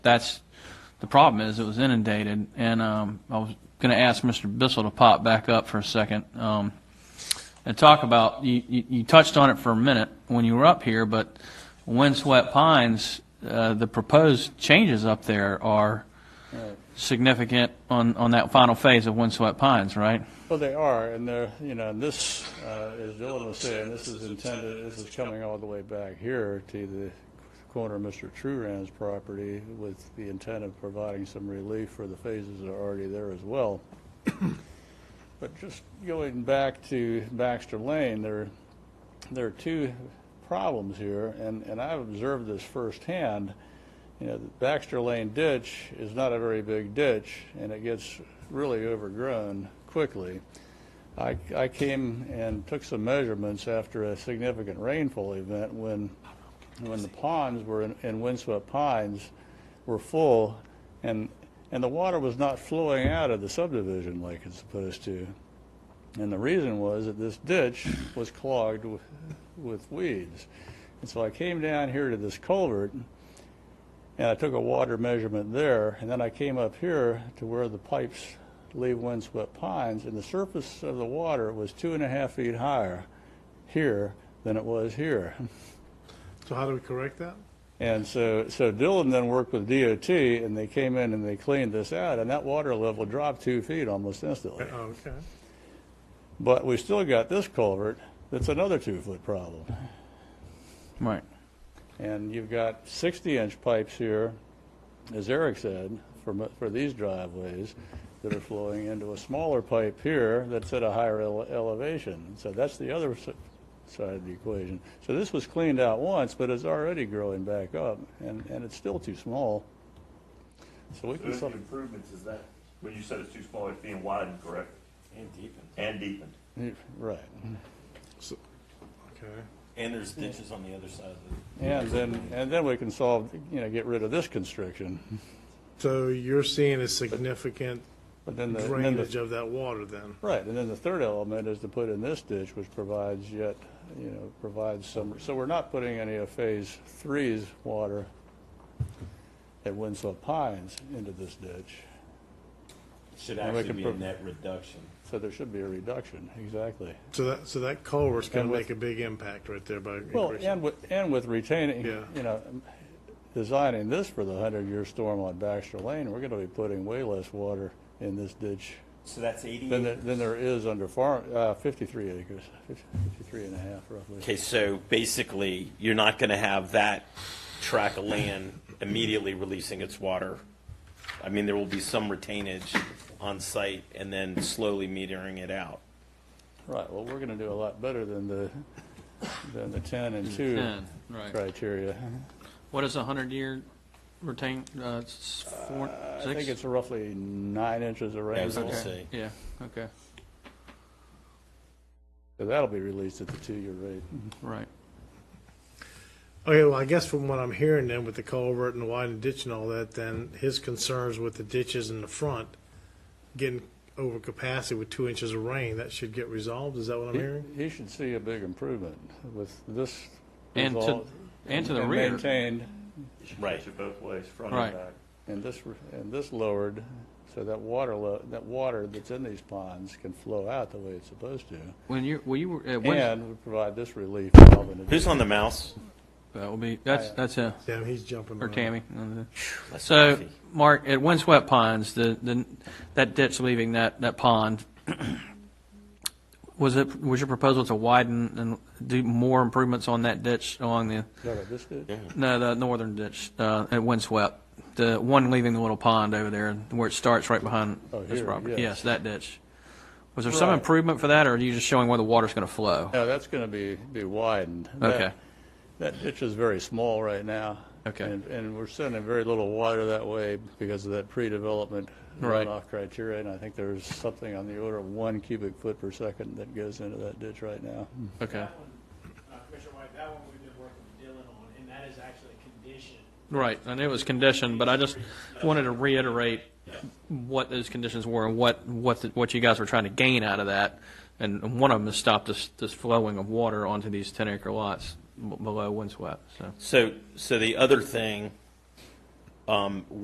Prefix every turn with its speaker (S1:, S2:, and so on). S1: that's, the problem is, it was inundated, and um, I was going to ask Mr. Bissell to pop back up for a second um, and talk about, you- you you touched on it for a minute when you were up here, but windswept pines, uh, the proposed changes up there are significant on, on that final phase of windswept pines, right?
S2: Well, they are, and they're, you know, and this, uh, as Dylan was saying, this is intended, this is coming all the way back here to the corner of Mr. Truran's property with the intent of providing some relief for the phases that are already there as well. But just going back to Baxter Lane, there, there are two problems here, and, and I've observed this firsthand. You know, the Baxter Lane ditch is not a very big ditch, and it gets really overgrown quickly. I, I came and took some measurements after a significant rainfall event when, when the ponds were in, in windswept pines were full, and, and the water was not flowing out of the subdivision like it's supposed to. And the reason was that this ditch was clogged with, with weeds. And so I came down here to this culvert and I took a water measurement there. And then I came up here to where the pipes leave windswept pines. And the surface of the water was two and a half feet higher here than it was here.
S3: So how do we correct that?
S2: And so, so Dylan then worked with DOT and they came in and they cleaned this out. And that water level dropped two feet almost instantly.
S3: Oh, Okay.
S2: But we still got this culvert that's another two foot problem.
S1: Right.
S2: And you've got 60-inch pipes here, as Eric said, for, mo- for these driveways that are flowing into a smaller pipe here that's at a higher ele- elevation. So that's the other s- side of the equation. So this was cleaned out once, but it's already growing back up, and, and it's still too small. So we can,
S4: Those
S2: solve-
S4: improvements is that, when you said it's too small, it's being widened, correct?
S5: And deepened.
S4: And deepened.
S2: right.
S3: Okay.
S5: And there's ditches on the other side of the,
S2: And then, and then we can solve, you know, get rid of this constriction.
S3: So you're seeing a significant
S2: But then the, then the
S3: drainage of that water then?
S2: Right, and then the third element is to put in this ditch, which provides yet, you know, provides some, so we're not putting any of Phase Three's water at Winslow Pines into this ditch,
S5: should
S2: And we
S5: actually
S2: can
S5: be a
S2: prov-
S5: net reduction.
S2: so there should be a reduction, exactly.
S3: So that, so that culvert's going
S2: And
S3: to
S2: with-
S3: make a big impact right there by increasing.
S2: Well, and with, and with retaining,
S3: Yeah.
S2: you know, designing this for the hundred-year storm on Baxter Lane, we're gonna be putting way less water in this ditch
S5: So that's eighty.
S2: than, there- than there is under farm, uh, fifty-three acres, 53 and a half roughly.
S5: Okay, so basically, you're not gonna have that track of land immediately releasing its water. I mean, there will be some retainage on site and then slowly metering it out.
S2: Right, well, we're gonna do a lot better than the, than the ten and two
S1: Ten, right.
S2: criteria.
S1: What is a 100-year retain, uh, s- four,
S2: I
S1: six?
S2: think it's roughly nine inches of
S5: As we'll
S2: rainfall, so
S5: see.
S1: Yeah, okay,
S2: that'll be released at the two-year rate.
S1: right.
S3: Okay, well, I guess from what I'm hearing then with the culvert and the widened ditch and all that, then his concerns with the ditches in the front getting over capacity with two inches of rain, that should get resolved. Is that what I'm hearing?
S2: He- He should see a big improvement with this.
S1: And to,
S2: result
S1: and to the rear.
S2: Maintained,
S5: Right.
S4: Pitch it both ways, front and
S1: Right.
S4: back.
S2: and this, re- and this lowered, so that water, lo- that water that's in these ponds can flow out the way it's supposed to.
S1: When you, when you were, at Wins-
S2: And would provide this relief. valve in
S5: Who's
S2: addition.
S5: on the mouse?
S1: that will be, that's, that's a,
S3: Damn, he's jumping.
S1: or
S3: around.
S1: Tammy.
S5: That's
S1: So,
S5: coffee.
S1: Mark, at Windswept Pines, the, the, that ditch leaving that, that pond, was it, was your proposal to widen and do more improvements on that ditch along the,
S2: No, no, this did.
S1: no, the northern ditch, uh, at Windswept? The one leaving the little pond over there, where it starts right behind
S2: Oh,
S1: this
S2: here,
S1: property?
S2: yes.
S1: Yes, that ditch. Was there some
S2: Right.
S1: improvement for that, or are you just showing where the water's going to flow?
S2: No, that's gonna be, be widened. That-
S1: Okay,
S2: That ditch is very small right now.
S1: Okay.
S2: And, and we're sending very little water that way because of that pre-development
S1: Right.
S2: runoff criteria. And I think there's something on the order of one cubic foot per second that goes into that ditch right now.
S1: okay.
S6: That one, uh, Commissioner White, that one we've been working with Dylan on, and that is actually a condition.
S1: Right, I knew it was conditioned, but I just wanted to reiterate what those conditions were and what, what, the- what you guys were trying to gain out of that. And one of them is stop this, this flowing of water onto these 10-acre lots b- below windswept, so.
S5: So, so the other thing, um, um,